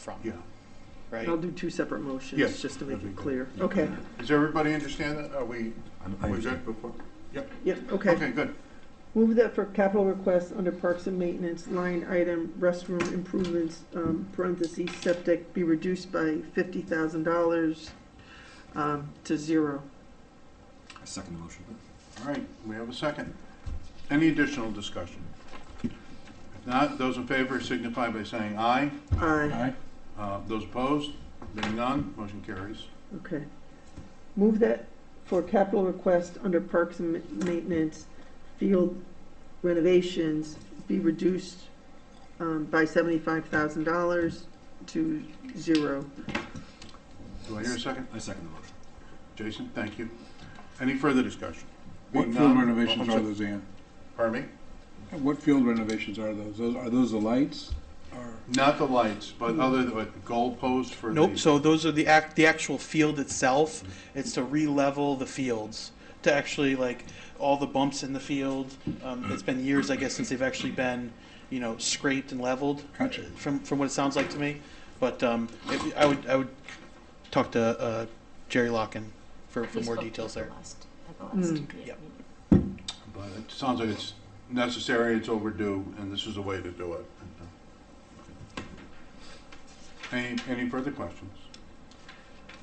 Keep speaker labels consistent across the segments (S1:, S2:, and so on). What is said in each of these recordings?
S1: from,
S2: Yeah.
S1: right?
S3: I'll do two separate motions,
S2: Yes,
S3: just to make
S2: that'd
S3: it
S2: be
S3: clear.
S2: good.
S3: Okay,
S2: Does everybody understand that? Are we,
S4: I'm- I
S2: we
S4: understand.
S2: good before? Yep.
S3: yeah, okay.
S2: Okay, good.
S3: Move that for capital requests under parks and maintenance, line item restroom improvements, um, parentheses, septic, be reduced by fifty thousand dollars, um, to zero.
S4: I second the motion.
S2: All right, we have a second. Any additional discussion? If not, those in favor signify by saying aye.
S3: Aye,
S2: Uh, Those opposed, being none, motion carries.
S3: okay. Move that for capital request under parks and ma- maintenance, field renovations, be reduced, um, by seventy-five thousand dollars to zero.
S2: Do I hear a second?
S4: I second the motion.
S2: Jason, thank you. Any further discussion?
S5: What
S2: Being
S5: field
S2: none-
S5: renovations
S2: oh,
S5: are
S2: I'm
S5: those, Ann?
S2: sorry. Pardon me?
S5: What field renovations are those? Those- Are those the lights? Or-
S2: Not the lights, but other, but goalposts for the.
S1: Nope, so those are the act, the actual field itself, it's to re-level the fields, to actually like, all the bumps in the field, um, it's been years, I guess, since they've actually been, you know, scraped and leveled.
S5: Gotcha.
S1: From, from what it sounds like to me, but, um, if- I would, I would talk to, uh, Jerry Locken for, for
S6: We
S1: more
S6: spoke
S1: details
S6: at
S1: there.
S6: the last- at the last
S3: Mm.
S6: meeting.
S1: Yep.
S2: But it sounds like it's necessary, it's overdue, and this is a way to do it. Any, any further questions?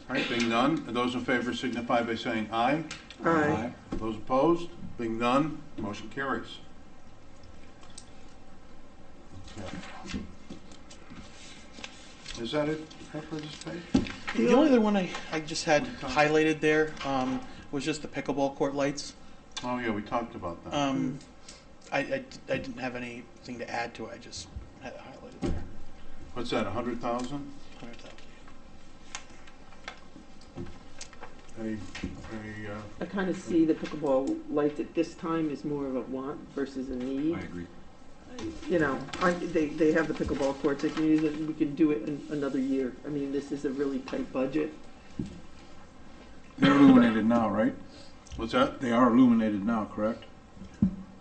S2: All right, being none, those in favor signify by saying aye.
S3: Aye.
S2: Those opposed, being none, motion carries. Okay. Is that it for this page?
S1: The only other one I, I just had highlighted there, um, was just the pickleball court lights.
S2: Oh, yeah, we talked about that.
S1: Um, I, I, I didn't have anything to add to it, I just had it highlighted there.
S2: What's that, a hundred thousand?
S1: Hundred thousand.
S2: A, a, uh,
S3: I kind of see the pickleball lights at this time is more of a want versus a
S4: I
S3: need.
S4: agree.
S3: You know, I, they, they have the pickleball courts, they can use it, we can do it in another year. I mean, this is a really tight budget.
S5: They're illuminated now, right?
S2: what's that?
S5: They are illuminated now, correct?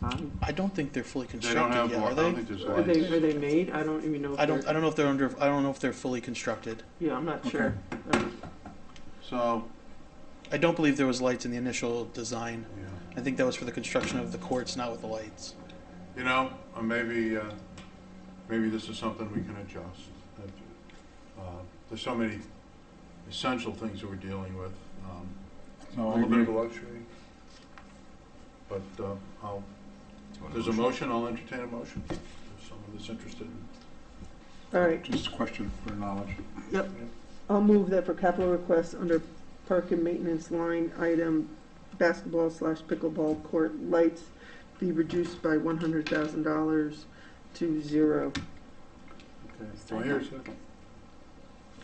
S3: I-
S1: I don't think they're fully
S2: They don't
S1: constructed
S2: have,
S1: yet,
S2: I
S1: are
S2: don't
S1: they?
S2: think there's
S3: Um, Are they, are
S2: lights.
S3: they made? I don't even know. if
S1: I don't,
S3: they're-
S1: I don't know if they're under, I don't know if they're fully constructed.
S3: Yeah, I'm not sure.
S2: So,
S1: I don't believe there was lights in the initial design.
S2: yeah.
S1: I think that was for the construction of the courts, not with the lights.
S2: You know, uh, maybe, uh, maybe this is something we can adjust. Uh, There's so many essential things that we're dealing with. um, A
S5: No, I
S2: little bit of a
S5: agree.
S2: luxury. But uh, I'll,
S4: Do you want
S2: there's a
S4: motion?
S2: motion, I'll entertain a motion if someone is interested.
S3: All right,
S5: Just a question for knowledge.
S3: I'll move that for capital requests under park and maintenance line item, basketball slash pickleball court lights be reduced by one hundred thousand dollars to zero.
S2: Okay. Do I hear a second?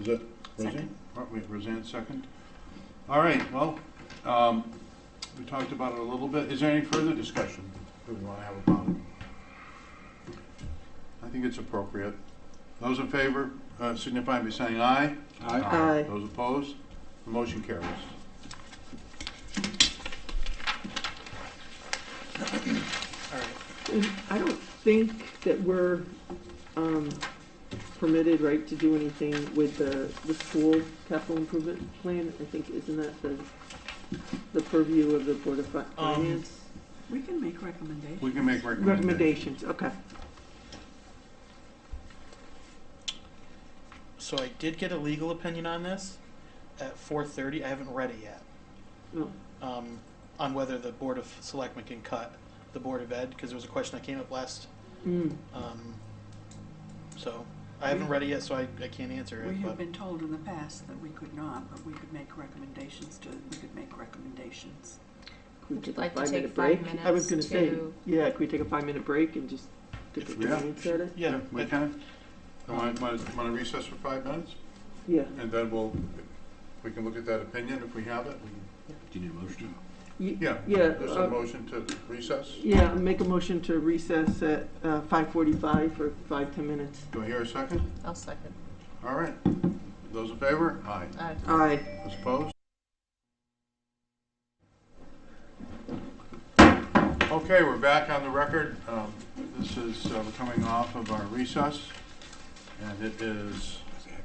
S2: Is that Roseanne? All right, Wait, Roseanne, second? All right, well, um, we talked about it a little bit. Is there any further discussion that we want to have about it? I think it's appropriate. Those in favor uh, signify by saying aye.
S5: Aye.
S3: Aye.
S2: Those opposed, the motion carries.
S1: All right.
S3: And I don't think that we're um, permitted, right, to do anything with the, the school capital improvement plan? I think, isn't that the, the purview of the Board of Fi-
S1: Um,
S3: Finance?
S7: We can make recommendations.
S2: We can make recommendations.
S3: Recommendations, okay.
S1: So I did get a legal opinion on this at four thirty. I haven't read it yet.
S3: No.
S1: Um, on whether the Board of Selectmen can cut the Board of Ed, because there was a question that came up last,
S3: Mm.
S1: um, so, I haven't read it yet, so I, I can't answer
S7: We
S1: it,
S7: have
S1: but,
S7: been told in the past that we could not, but we could make recommendations to, we could make recommendations.
S3: Could we
S6: Would you like to
S3: five-minute
S6: take five
S3: break? I was gonna
S6: minutes
S3: say,
S6: to-
S3: yeah, could we take a five-minute break and just take a
S1: If
S2: we-
S3: few minutes at it?
S1: yeah.
S2: We
S1: it-
S2: can? Want to recess for five minutes?
S3: Yeah.
S2: And then we'll, we can look at that opinion if we have it. We can-
S4: Do you need a motion?
S3: Y-
S2: Yeah.
S3: Yeah,
S2: There's
S3: uh,
S2: a motion to recess.
S3: Yeah, make a motion to recess at uh, 5:45 for five, 10 minutes.
S2: Do I hear a second?
S6: I'll second.
S2: All right. Those in favor? Aye.
S6: Aye.
S3: Aye.
S2: Those opposed? Okay, we're back on the record. Um, This is, uh, we're coming off of our recess, and it is